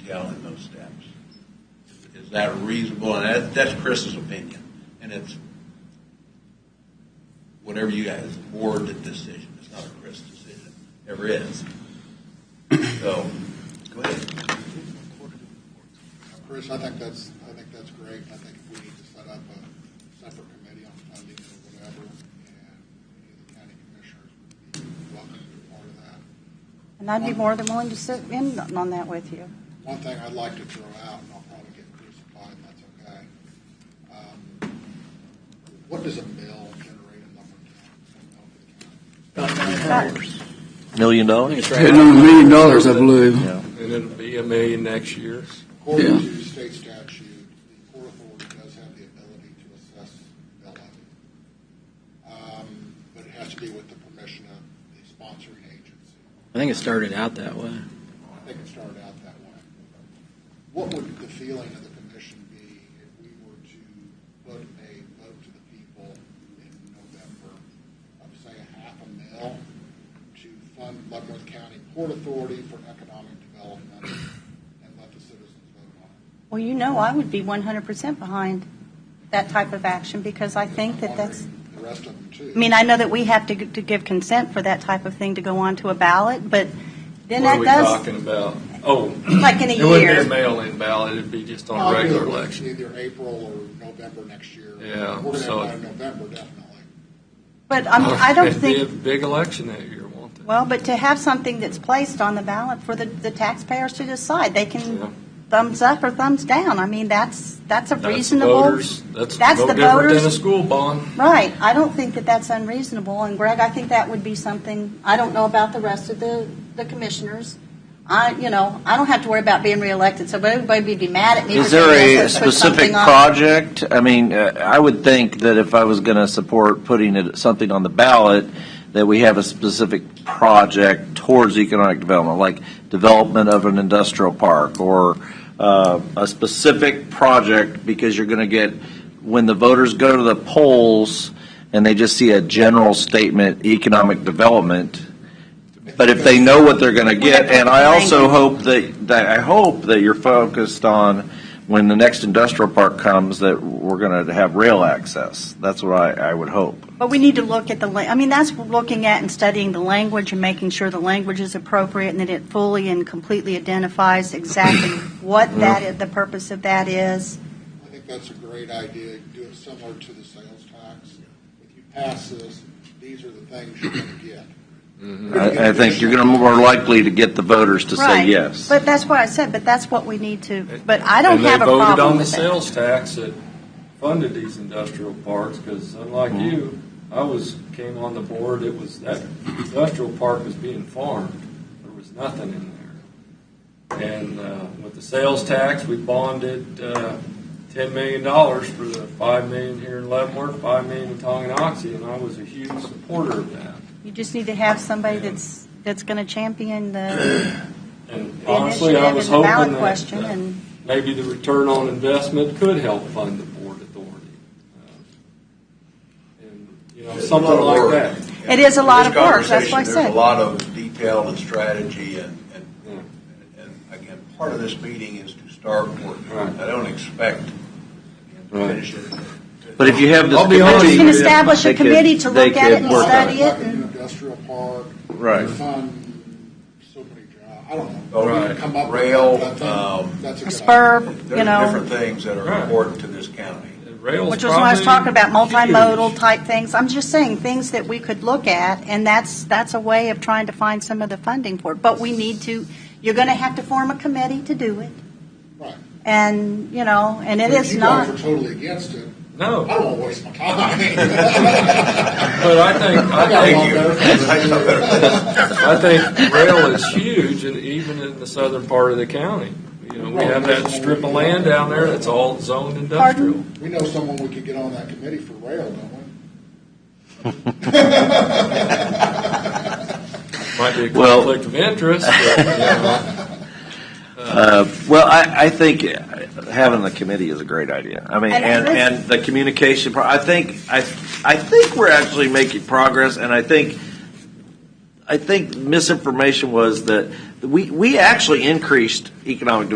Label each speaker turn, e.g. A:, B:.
A: following those steps. Is that reasonable? And that, that's Chris's opinion, and it's whatever you guys, it's a board decision, it's not a Chris decision, ever is. So, go ahead.
B: Chris, I think that's, I think that's great. I think if we need to set up a separate committee on funding or whatever, and any of the county commissioners would be welcome to be part of that.
C: And I'd be more than willing to sit in on that with you.
B: One thing I'd like to throw out, and I'll probably get crucified, and that's okay. Um, What does a mill generate in Lumberton?
D: Million dollars?
E: Hitting on a million dollars, I believe.
F: And it'll be a million next year.
B: According
E: Yeah.
B: to state statute, the Port Authority does have the ability to assess mill levy. Um, But it has to be with the permission of the sponsoring agency.
G: I think it started out that way.
B: I think it started out that way. What would the feeling of the commission be if we were to put a vote to the people in November of, say, a half a mil to fund Leavenworth County Port Authority for economic development and let the citizens vote on it?
C: Well, you know, I would be 100% behind that type of action because I think that that's,
B: The rest of them too.
C: I mean, I know that we have to, g- to give consent for that type of thing to go on to a ballot, but then
F: What are
C: that
F: we
C: does,
F: talking about? Oh,
C: like in a
F: it wouldn't be a
C: year.
F: mail-in ballot, it'd be just on
B: I'll
F: a
B: do
F: regular
B: it with
F: election.
B: Either April or November next year.
F: Yeah,
B: We're going to
F: so-
B: have it in November, definitely.
C: But I'm, I don't
F: It'd be a
C: think,
F: Big election that year, won't it?
C: well, but to have something that's placed on the ballot for the, the taxpayers to decide, they
F: Yeah.
C: can thumbs up or thumbs down. I mean, that's, that's a
F: That's
C: reasonable.
F: voters. That's
C: that's
F: no
C: the
F: different
C: voters.
F: than a school bond.
C: Right, I don't think that that's unreasonable, and Greg, I think that would be something, I don't know about the rest of the, the commissioners. I, you know, I don't have to worry about being reelected, so everybody would be mad at me.
D: Is
C: for saying I
D: there a
C: could've put
D: specific
C: something on.
D: project? I mean, uh, I would think that if I was going to support putting it- something on the ballot, that we have a specific project towards economic development, like development of an industrial park or uh, a specific project, because you're going to get, when the voters go to the polls and they just see a general statement, economic development, but if they know what they're going to get, and I also hope that, that, I hope that you're focused on when the next industrial park comes, that we're going to have rail access. That's what I, I would hope.
C: But we need to look at the, la- I mean, that's looking at and studying the language and making sure the language is appropriate and that it fully and completely identifies exactly what that, i- the purpose of that is.
B: I think that's a great idea. You can Do it similar to the sales tax. If you pass this, these are the things you're going to get.
D: Mm-hmm. I, I think you're going to more likely to get the voters to say
C: Right.
D: yes.
C: But that's why I said, but that's what we need to, but I don't
F: And they
C: have a
F: voted
C: problem
F: on the
C: with that.
F: sales tax that funded these industrial parks, because unlike you, I was, came on the board, it was, that industrial park was being farmed. There was nothing in there. And uh, with the sales tax, we bonded uh, ten million dollars for the five million here in Leavenworth, five million in Tonganoxie, and I was a huge supporter of that.
C: You just need to have somebody that's, that's going to champion the
F: And
C: the initiative
F: honestly, I
C: and
F: was
C: the
F: hoping
C: ballot
F: that
C: question
F: uh,
C: and.
F: maybe the return on investment could help fund the board authority. Uh, And, you know, something like that.
C: It is a lot of work, that's
A: why
C: what I said.
A: There's a lot of detail and strategy and, and,
F: Yeah.
A: and again, part of this meeting is to start working.
F: Right.
A: I don't expect to
F: Right.
A: finish it.
D: But if you have this
F: I'll be honest,
D: committee.
F: you can
C: establish a
D: they could-
C: committee to
D: they
C: look at
D: could
C: it and
D: work on
C: study it
B: Like an
C: and-
B: Industrial park.
D: Right.
B: Fund, so many jobs. I don't know.
A: Oh,
B: We can
F: right.
B: come up with
A: Rail,
B: something.
A: um,
B: That's a
C: A
B: good
C: spur, you
A: There's
C: know,
A: different things that are
F: Right.
A: important to this county.
F: Rail's
C: which was when I was talking about
F: probably huge.
C: multimodal type things. I'm just saying, things that we could look at, and that's, that's a way of trying to find some of the funding for it. But we need to, you're going to have to form a committee to do it.
B: Right.
C: And, you know, and it
B: But if
C: is
B: you
C: not.
B: guys are totally against it, I
F: No,
B: don't want to waste my time.
F: but I think,
B: I
F: I
B: got
F: think,
B: one better.
F: I think rail is huge, and even in the southern part of the county. You know, we have that strip of land down there that's all zoned industrial.
B: We know someone we could get on that committee for rail, don't we?
F: Might be a
D: Well-
F: conflict of interest, but, you know,
D: Uh, Well, I, I think having the committee is a great idea. I mean,
C: And
D: and,
C: this-
D: and the communication, pro- I think, I, I think we're actually making progress, and I think, I think misinformation was that, we, we actually increased economic